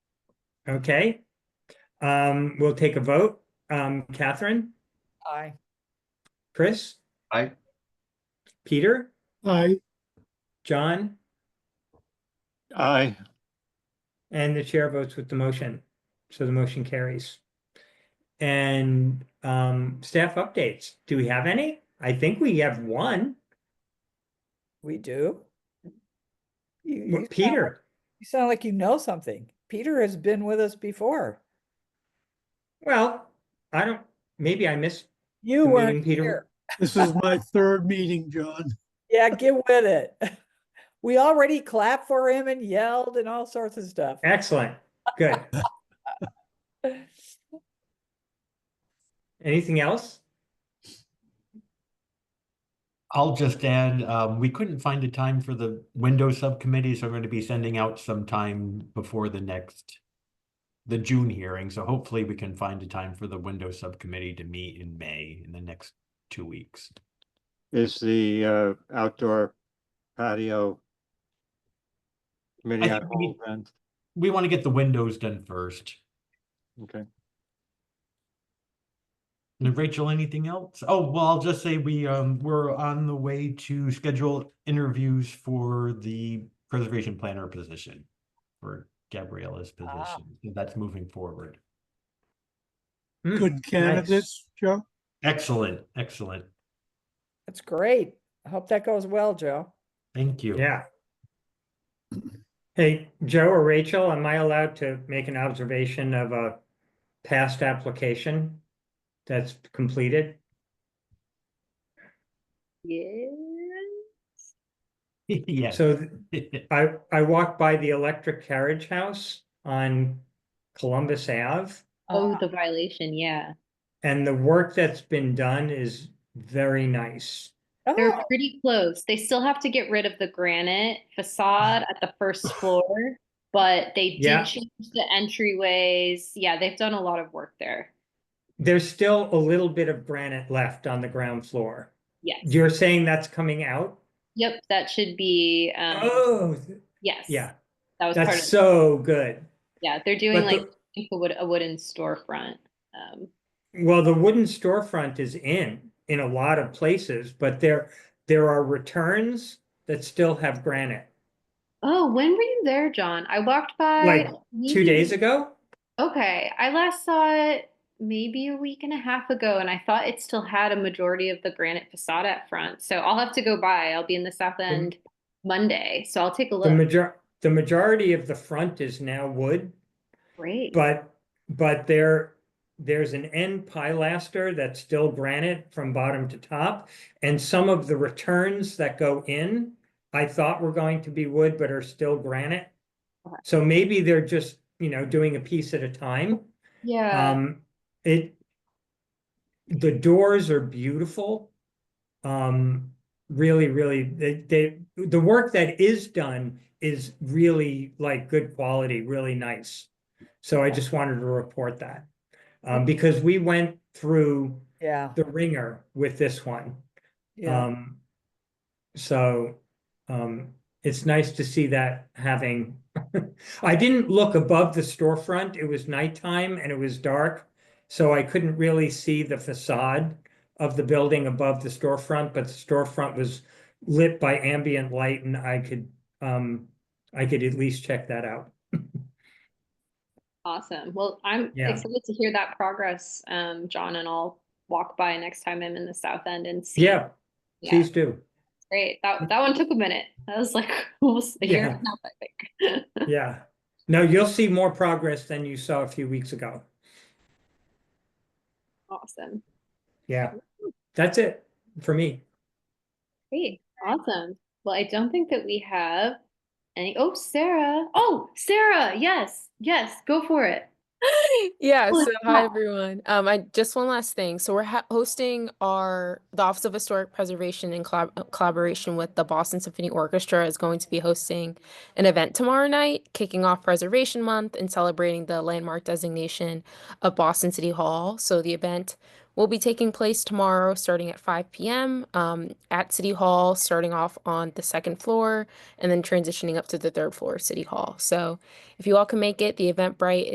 Okay. Um, we'll take a vote. Um, Catherine, Aye. Chris, Aye. Peter, Aye. John, Aye. and the chair votes with the motion. So the motion carries. And, um, staff updates. Do we have any? I think we have one. We do? You- you Well, sound- Peter, You sound like you know something. Peter has been with us before. well, I don't, maybe I missed, You The weren't meeting, Peter- here. This is my third meeting, John. Yeah, get with it. We already clapped for him and yelled and all sorts of stuff. excellent. Good. Anything else? I'll just add, um, we couldn't find a time for the window subcommittee, so I'm going to be sending out some time before the next, the June hearing, so hopefully we can find a time for the window subcommittee to meet in May in the next two weeks. Is the uh outdoor patio committee I on think we hold then? We want to get the windows done first. Okay, And Rachel, anything else? Oh, well, I'll just say we, um, we're on the way to schedule interviews for the preservation planner position, for Gabriella's Ah. position. That's moving forward. Hmm, Good candidates, Joe. Excellent, excellent. That's great. I hope that goes well, Joe. Thank you. Yeah. Hey, Joe or Rachel, am I allowed to make an observation of a past application that's completed? Yeah. Yes. So th- I, I walked by the electric carriage house on Columbus Ave. Oh, Uh, the violation, yeah. And the work that's been done is very nice. oh, They're pretty close. They still have to get rid of the granite facade at the first floor, but they Yeah. did change the entryways. Yeah, they've done a lot of work there. There's still a little bit of granite left on the ground floor. Yes. You're saying that's coming out? Yep, that should be, um, Oh, th- yes. yeah, That was part that's of, so good. yeah, they're doing but like the- I think a wood, a wooden storefront. Um, Well, the wooden storefront is in, in a lot of places, but there, there are returns that still have granite. oh, when were you there, John? I walked by. Like, Two maybe- days ago, Okay, I last saw it maybe a week and a half ago, and I thought it still had a majority of the granite facade up front. So I'll have to go by. I'll be in the South End Monday, so I'll take a the look. major, the majority of the front is now wood, Great. but, but there, there's an end pilaster that's still granite from bottom to top. And some of the returns that go in, I thought were going to be wood, but are still granite. Okay. So maybe they're just, you know, doing a piece at a time. Yeah. Um, it, the doors are beautiful. Um, really, really, they, they, the work that is done is really like good quality, really nice. So I just wanted to report that. Um, because we went through yeah, the ringer with this one. yeah. Um, so, um, it's nice to see that having, I didn't look above the storefront. It was nighttime and it was dark. So I couldn't really see the facade of the building above the storefront, but the storefront was lit by ambient light and I could, um, I could at least check that out. Awesome. Well, I'm Yeah. excited to hear that progress, um, John, and I'll walk by next time I'm in the South End and see. Yeah, Yeah, please do. great. That that one took a minute. That was like almost a year and a Yeah. half, I think. Yeah. No, you'll see more progress than you saw a few weeks ago. Awesome. Yeah. That's it for me. Great, awesome. Well, I don't think that we have any. Oh, Sarah. Oh, Sarah. Yes, yes. Go for it. Yeah, Oh, so hi yeah. everyone. Um, I just one last thing. So we're ha hosting our the Office of Historic Preservation in collab uh, collaboration with the Boston Symphony Orchestra is going to be hosting an event tomorrow night, kicking off Preservation Month and celebrating the landmark designation of Boston City Hall. So the event will be taking place tomorrow, starting at 5 p.m. um, at City Hall, starting off on the second floor and then transitioning up to the third floor of City Hall. So if you all can make it, the Eventbrite